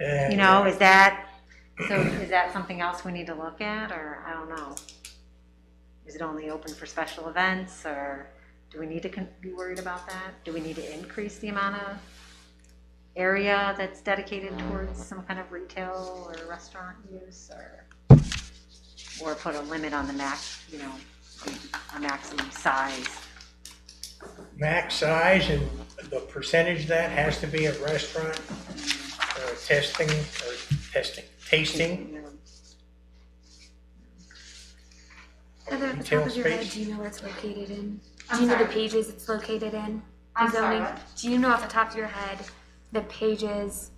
And, You know, is that, so is that something else we need to look at, or I don't know? Is it only open for special events, or do we need to con- be worried about that? Do we need to increase the amount of area that's dedicated towards some kind of retail or restaurant use, or, or put a limit on the max, you know, a maximum size? uh, max size and the percentage of that has to be at restaurant uh, testing or testing, tasting. Heather, at the Retail top of your head, space. do you know where it's located in? I'm Do you know the sorry. pages it's located in? I'm The sorry, zoning- what? Do you know off the top of your head the pages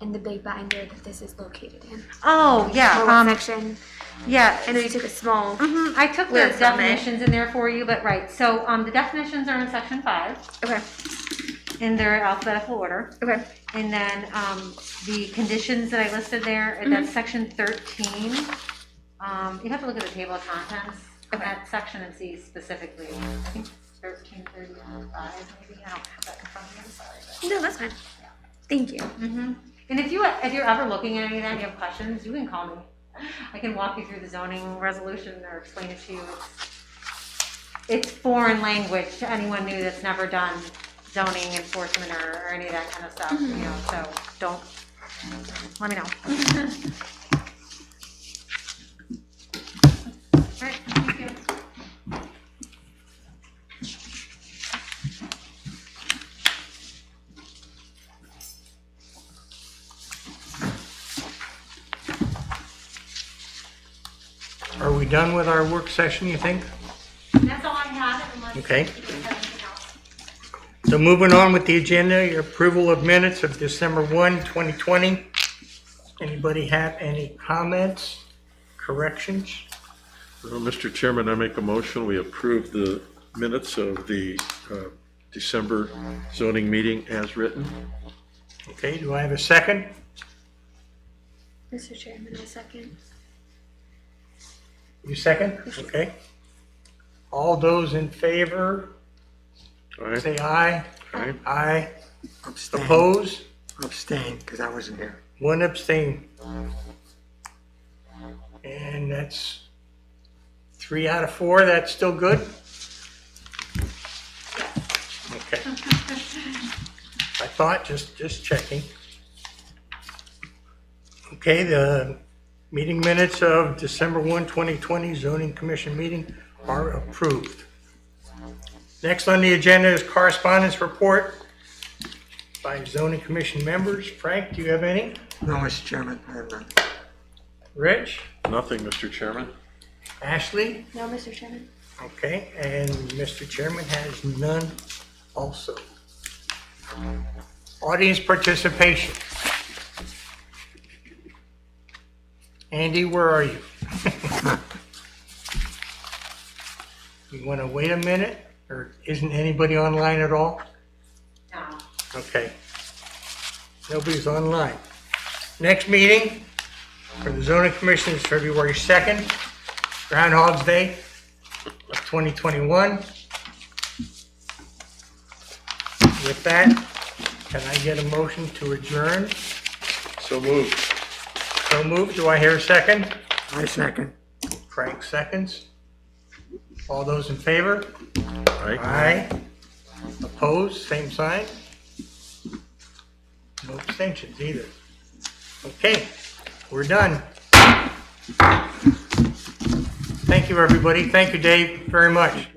and the big binder that this is located in? Oh, yeah, Or what um, section? yeah, I know you took a small. Mhm, I took Where the from, right? definitions in there for you, but right, so, um, the definitions are in section five, Okay. in their alphabetical order. Okay. And then, um, the conditions that I listed there, and Mm-hmm. that's section thirteen. Um, you have to look at the table of contents of that section and see specifically, I think thirteen thirty-five, maybe, I don't have that in front of me, I'm sorry. but- No, that's fine. Thank you. Mhm. And if you, if you're ever looking at any of that and you have questions, you can call me. I can walk you through the zoning resolution or explain it to you. It's- It's foreign language to anyone new that's never done zoning enforcement or, or any of that kind of stuff, you know, so don't, let me know. All right, thank you. Are we done with our work session, you think? That's all I had unless. Okay. you have anything else. So moving on with the agenda, your approval of minutes of December 1, 2020. Anybody have any comments, corrections? Well, Mr. Chairman, I make a motion, we approve the minutes of the uh, December zoning meeting as written. Okay, do I have a second? Mr. Chairman, a second. You second? Okay. All those in favor, Aye, say aye. aye. Aye. Abstain, Oppose? abstain, because I wasn't here. One abstain. And that's three out of four, that's still good? Okay. I thought, just, just checking. Okay, the meeting minutes of December 1, 2020 zoning commission meeting are approved. Next on the agenda is correspondence report by zoning commission members. Frank, do you have any? No, Mr. Chairman, I have none. Rich? Nothing, Mr. Chairman. Ashley? No, Mr. Chairman. Okay, and Mr. Chairman has none also. Audience participation. Andy, where are you? You want to wait a minute, or isn't anybody online at all? No. Okay. Nobody's online. Next meeting for the zoning commission is February 2nd, Groundhog's Day of 2021. With that, can I get a motion to adjourn? So moved. So moved. Do I hear a second? I second. Frank seconds. All those in favor? Aye. Aye. Opposed, same sign. No abstentions either. Okay, we're done. Thank you, everybody. Thank you, Dave, very much.